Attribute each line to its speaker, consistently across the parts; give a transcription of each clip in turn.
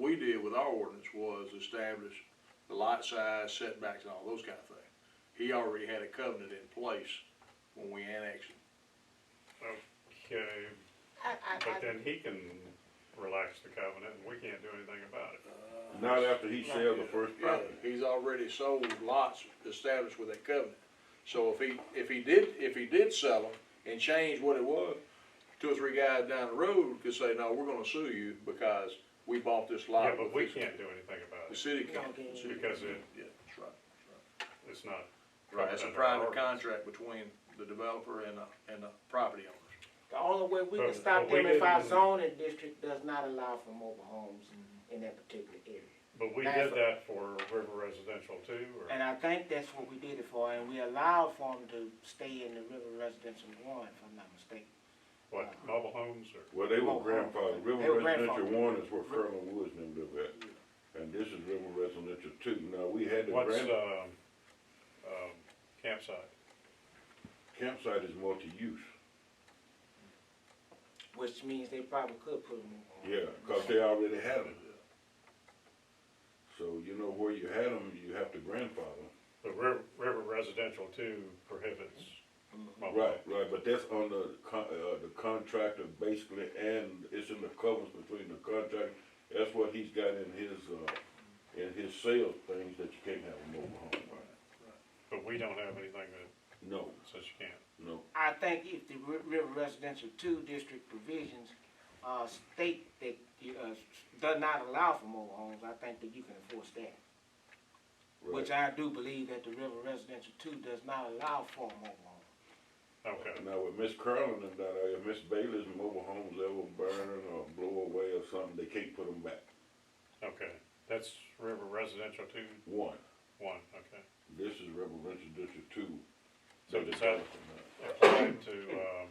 Speaker 1: with our ordinance was establish the lot size, setbacks, and all those kind of things. He already had a covenant in place when we annexed it.
Speaker 2: Okay,
Speaker 3: I,
Speaker 2: but
Speaker 3: I, I,
Speaker 2: then he can relax the covenant and we can't do anything about it.
Speaker 4: Not after he sells the first
Speaker 1: Yeah,
Speaker 4: property.
Speaker 1: he's already sold lots established with that covenant. So if he, if he did, if he did sell them and change what it was, two or three guys down the road could say, no, we're gonna sue you because we bought this lot.
Speaker 2: Yeah, but we
Speaker 1: with this-
Speaker 2: can't do anything about
Speaker 1: The
Speaker 2: it.
Speaker 1: city can't.
Speaker 5: Okay.
Speaker 1: The city
Speaker 2: Because
Speaker 1: can't.
Speaker 2: it-
Speaker 1: Yeah, that's right.
Speaker 2: It's not.
Speaker 1: Right, it's a
Speaker 2: covered under our
Speaker 1: private
Speaker 2: ordinance.
Speaker 1: contract between the developer and the, and the property owners.
Speaker 5: The only way we can
Speaker 2: But-
Speaker 5: stop
Speaker 2: but we
Speaker 5: them if our
Speaker 2: didn't-
Speaker 5: zoning district does not allow for mobile homes
Speaker 3: Mm-hmm.
Speaker 5: in that particular area.
Speaker 2: But we
Speaker 5: That's
Speaker 2: did
Speaker 5: a-
Speaker 2: that for River Residential too, or,
Speaker 5: And I think that's what we did it for, and we allowed for them to stay in the River Residential One, if I'm not mistaken.
Speaker 2: what, mobile homes or?
Speaker 4: Well, they
Speaker 5: Oh,
Speaker 4: were
Speaker 5: oh,
Speaker 4: grandfathered,
Speaker 5: they were
Speaker 4: River Residential
Speaker 5: grandfathered.
Speaker 4: One is where Furlong Woods and them live at, and this is River Residential Two, now, we had the
Speaker 2: What's,
Speaker 4: grand,
Speaker 2: um, um, campsite?
Speaker 4: campsite is multi-use,
Speaker 5: Which means they probably could put them on.
Speaker 4: yeah, cause they already had it. So you know where you had them, you have to grandfather,
Speaker 2: The River, River Residential too prohibits mobile.
Speaker 4: right,
Speaker 2: homes.
Speaker 4: right, but that's on the con, uh, the contractor basically, and it's in the covers between the contractor, that's what he's got in his, uh, in his sales things that you can't have a mobile home,
Speaker 2: But we don't have anything that
Speaker 4: no,
Speaker 2: says you can't.
Speaker 4: no.
Speaker 5: I think if the Ri- River Residential Two District provisions, uh, state that, you, uh, does not allow for mobile homes, I think that you can enforce that.
Speaker 4: right.
Speaker 5: Which I do believe that the River Residential Two does not allow for a mobile home.
Speaker 2: Okay,
Speaker 4: Now with Miss Curlin and that, uh, if Miss Bailey's mobile homes ever burn or blow away or something, they can't put them back.
Speaker 2: okay. That's River Residential two,
Speaker 4: One,
Speaker 2: one, okay.
Speaker 4: this is Residential District Two.
Speaker 2: So
Speaker 4: That
Speaker 2: does
Speaker 4: is
Speaker 2: that-
Speaker 4: awesome, uh,
Speaker 2: Applied to, um,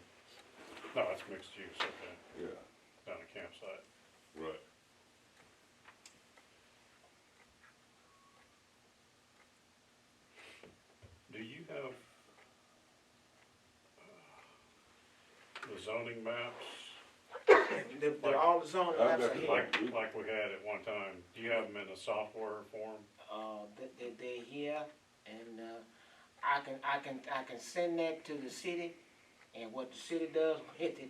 Speaker 2: no, it's mixed use, okay,
Speaker 4: Yeah,
Speaker 2: down a campsite.
Speaker 4: right.
Speaker 2: Do you have uh, the zoning maps,
Speaker 5: The, the, all the zoning
Speaker 4: I've
Speaker 5: maps
Speaker 4: got
Speaker 5: are
Speaker 4: the
Speaker 5: here.
Speaker 2: like, like we had at one time? Do you have them in a software form?
Speaker 5: Uh, they, they, they're here, and, uh, I can, I can, I can send that to the city, and what the city does with it,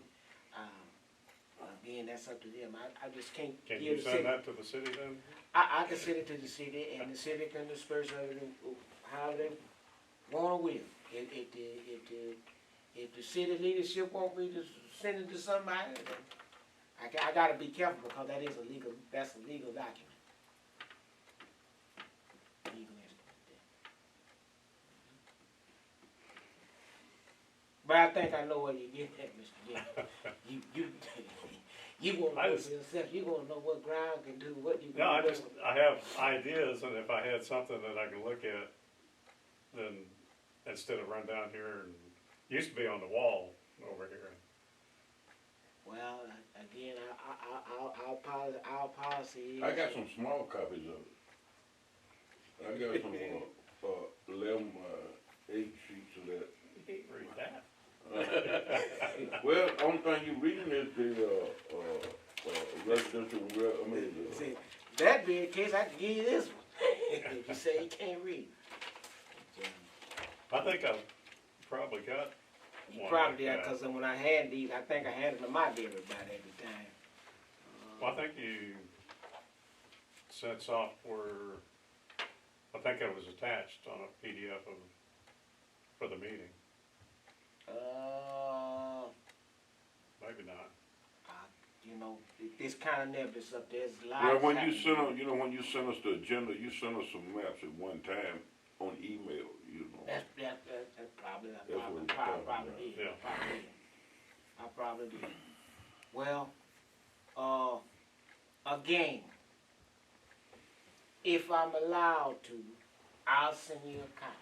Speaker 5: um, again, that's up to them. I, I just can't
Speaker 2: Can
Speaker 5: give
Speaker 2: you
Speaker 5: the city.
Speaker 2: send that to the city then?
Speaker 5: I, I can send it to the city, and the city can disperse of it however they want or will. If, if the, if the, if the city leadership want me to send it to somebody, then I ca- I gotta be careful because that is a legal, that's a legal document. Legal instrument. But I think I know where you get that, Mr. Jim. You, you, you won't
Speaker 2: I
Speaker 5: know
Speaker 2: just-
Speaker 5: for yourself, you won't know what ground can do, what you.
Speaker 2: No, I
Speaker 5: what-
Speaker 2: just, I have ideas, and if I had something that I could look at, then instead of run down here and, used to be on the wall over here.
Speaker 5: Well, again, our, our, our policy, our policy is.
Speaker 4: I got some small copies of it. I got some, uh, uh, eleven, uh, eight sheets of that.
Speaker 2: Read that.
Speaker 4: Well, only thing you reading is the, uh, uh, uh, residential, re- I mean, the-
Speaker 5: See, that being the case, I can give you this one. You say you can't read.
Speaker 2: I think I've probably got one
Speaker 5: You
Speaker 2: like
Speaker 5: probably,
Speaker 2: that.
Speaker 5: because when I had these, I think I handed them out to everybody every time.
Speaker 2: Well, I think you sent software, I think it was attached on a PDF of, for the meeting,
Speaker 5: Uh,
Speaker 2: maybe not.
Speaker 5: you know, it- this kind of nebulous up there, it's live.
Speaker 4: Well, when you send us, you know, when you send us the agenda, you send us some maps at one time on email, you know.
Speaker 5: That's, that's, that's that's probably, I probably,
Speaker 4: what
Speaker 5: probably,
Speaker 4: we're talking
Speaker 5: probably
Speaker 4: about.
Speaker 5: did,
Speaker 2: Yeah.
Speaker 5: probably did. I probably did. Well, uh, again, if I'm allowed to, I'll send you a copy.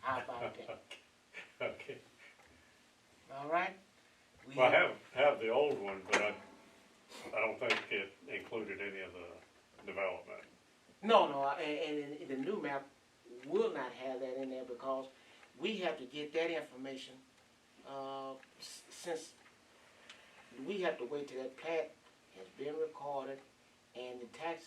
Speaker 5: How about that?
Speaker 2: Okay,
Speaker 5: All right? We
Speaker 2: well, I have, have the old one, but I, I don't think it included any of the development.
Speaker 5: No, no, I- and, and, and the new map will not have that in there because we have to get that information, uh, s- since we have to wait till that plat has been recorded and the tax